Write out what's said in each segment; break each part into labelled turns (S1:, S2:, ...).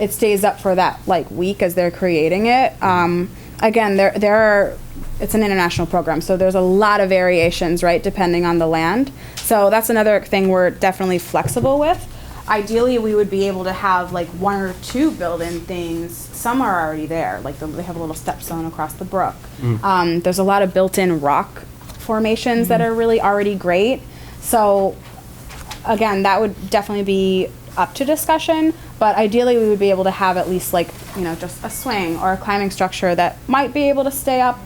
S1: it stays up for that like week as they're creating it. Um, again, there there are it's an international program, so there's a lot of variations, right, depending on the land. So that's another thing we're definitely flexible with. Ideally, we would be able to have like one or two built-in things. Some are already there, like the, they have a little stepstone across the brook. Um, there's a lot of built-in rock formations that are really already great. So again, that would definitely be up to discussion, but ideally we would be able to have at least like, you know, just a swing or a climbing structure that might be able to stay up.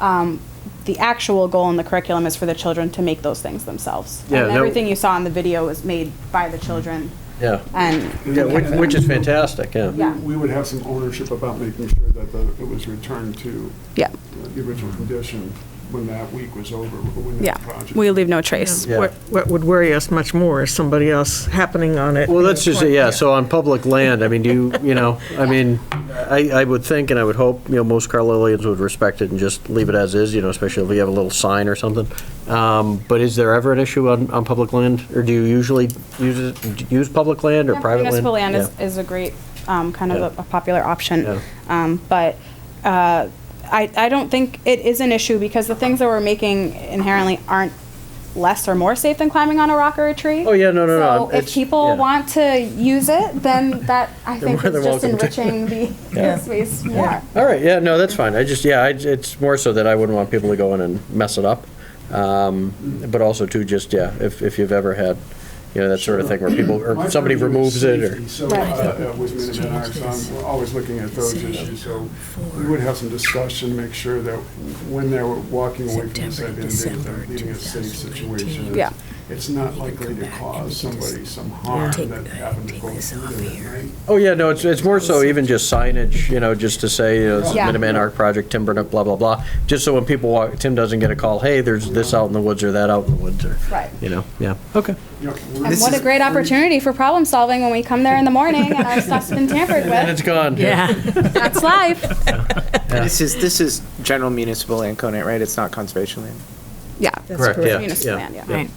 S1: Um, the actual goal in the curriculum is for the children to make those things themselves.
S2: Yeah,
S1: and
S2: that-
S1: everything you saw in the video was made by the children.
S2: Yeah,
S1: And
S2: yeah, which, which is fantastic, yeah.
S1: Yeah.
S3: We would have some ownership about making sure that the- it was returned to
S1: yeah,
S3: uh, the original
S2: Mm-hmm.
S3: condition when that week was over, or when
S1: yeah,
S3: that project.
S1: we leave no trace.
S2: Yeah.
S4: What, what would worry us much more is somebody else happening on it.
S2: Well, let's just, say, yeah, so on public land, I mean, do you, you know, I mean, I, I would think and I would hope, you know, most Carlileans would respect it and just leave it as is, you know, especially if we have a little sign or something. Um, But is there ever an issue on, on public land? Or do you usually use, it- use public land or
S1: Yeah,
S2: private land?
S1: Municipal land
S2: Yeah.
S1: is, is a great, um, kind of
S2: Yeah.
S1: a, a popular option.
S2: Yeah.
S1: Um, but, uh, I, I don't think it is an issue because the things that we're making inherently aren't less or more safe than climbing on a rock or a tree.
S2: Oh, yeah, no, no, no,
S1: So if
S2: it's-
S1: people
S2: yeah.
S1: want to use it, then that, I think,
S2: more
S1: is
S2: than
S1: just
S2: welcome to.
S1: enriching the the space more.
S2: All right, yeah, no, that's fine. I just, yeah, I- it's more so that I wouldn't want people to go in and mess it up. Um, But also too, just, yeah, if, if you've ever had, you know, that sort of thing where people,
S3: My
S2: or somebody
S3: purview
S2: removes
S3: is
S2: it or.
S3: safety, So, uh,
S1: Right.
S3: uh, with Minuteman in Arts, I'm- we're always looking at those issues, so we would have some discussion, make sure that when they're walking away from the site,
S5: September,
S3: they're
S5: December
S3: leaving a safe
S5: 2019.
S3: situation.
S1: Yeah.
S3: It's not likely to cause somebody some harm
S5: Take-
S3: that happened to
S5: take
S3: go
S5: this off
S3: through
S5: here.
S3: there, right?
S2: Oh, yeah, no, it's, it's more so even just signage, you know, just to say, you know, this is
S1: Yeah.
S2: Minuteman Art Project, Tim Burnup, blah, blah, blah. Just so when people walk, Tim doesn't get a call, hey, there's this out in the woods or that out in the woods or,
S1: Right.
S2: you know, yeah, okay.
S3: You know, we're-
S1: And what a great opportunity for problem solving when we come there in the morning and our stuff's been tampered
S2: And it's
S1: with.
S2: gone.
S4: Yeah.
S1: That's life.
S6: This is, this is general municipal land covenant, right? It's not conservation land.
S1: Yeah.
S2: Correct, yeah,
S1: Municipal land, yeah.
S2: yeah.
S4: Right.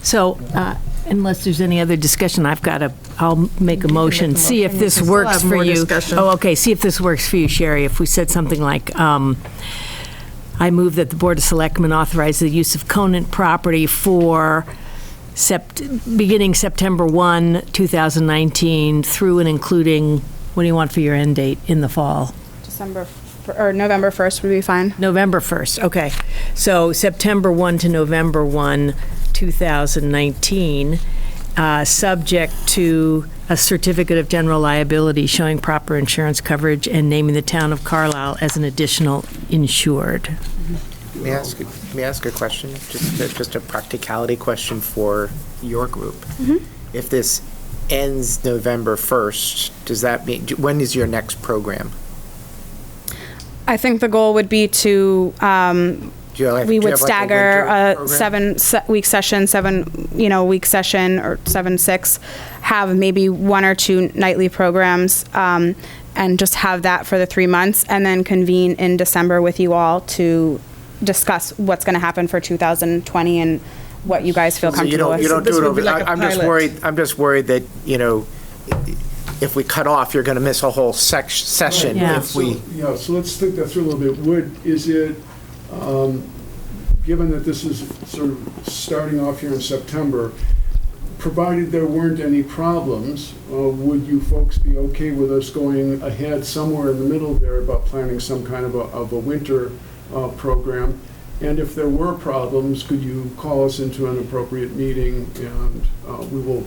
S5: So uh, unless there's any other discussion, I've got to, I'll make a motion, see if this
S4: We still
S5: works
S4: have
S5: for
S4: more
S5: you.
S4: discussion.
S5: Oh, okay, see if this works for you, Sherry, if we said something like, um, I move that the Board of Selectmen authorize the use of Conant property for sept, beginning September 1, 2019, through and including, what do you want for your end date in the fall?
S1: December, f- or November 1st would be fine.
S5: November 1st, okay. So September 1 to November 1, 2019, uh, subject to a certificate of general liability showing proper insurance coverage and naming the town of Carlisle as an additional insured.
S6: May I ask, may I ask a question? Just, a- just a practicality question for your group. If this ends November 1st, does that mean, do- when is your next program?
S1: I think the goal would be to, um,
S6: Do you like- do
S1: we
S6: you
S1: would
S6: have like a
S1: stagger
S6: winter
S1: a
S6: program?
S1: seven se- week session, seven, you know, week session or seven, six, have maybe one or two nightly programs, um, and just have that for the three months and then convene in December with you all to discuss what's going to happen for 2020 and what you guys feel
S6: So you
S1: comfortable
S6: don't,
S1: with.
S6: you don't
S4: This
S6: do it
S4: would be
S6: over,
S4: like a
S6: I- I'm just
S4: pilot.
S6: worried, I'm just worried that, you know, if we cut off, you're going to miss a whole sec, session
S5: Yeah.
S6: if we.
S3: Yeah, so let's think that through a little bit. Would, is it, um, given that this is sort of starting off here in September, provided there weren't any problems, uh, would you folks be okay with us going ahead somewhere in the middle there about planning some kind of a, of a winter uh, program? And if there were problems, could you call us into an appropriate meeting and uh, we will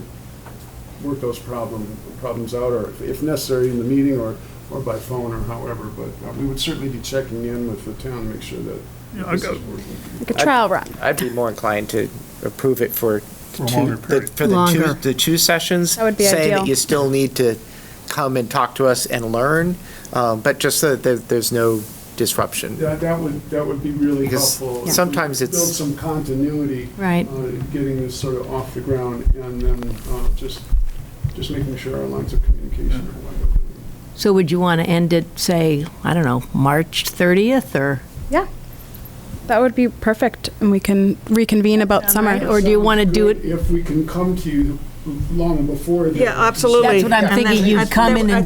S3: work those problem, problems out, or if- if necessary, in the meeting or, or by phone or however, but uh, we would certainly be checking in with the town to make sure that this is working.
S1: Like a trial run.
S6: I'd be more inclined to approve it for two,
S3: longer
S6: the- for the two,
S5: Longer.
S6: the two sessions.
S1: That would be
S6: Saying
S1: ideal.
S6: that you still need to come and talk to us and learn, um, but just so that there- there's no disruption.
S3: That, that would, that would be really
S6: Because
S3: helpful.
S6: sometimes it's-
S3: Build some continuity.
S5: Right.
S3: uh, Getting this sort of off the ground and then uh, just, just making sure our lines of communication are wide open.
S5: So would you want to end it, say, I don't know, March 30th or?
S1: Yeah. That would be perfect. And we can reconvene about summer.
S5: Or do you want to do it?
S3: If we can come to you long before. then.
S4: Yeah, absolutely.
S5: That's what I'm
S4: And then
S5: thinking, you'd
S4: I-
S5: come in and
S4: I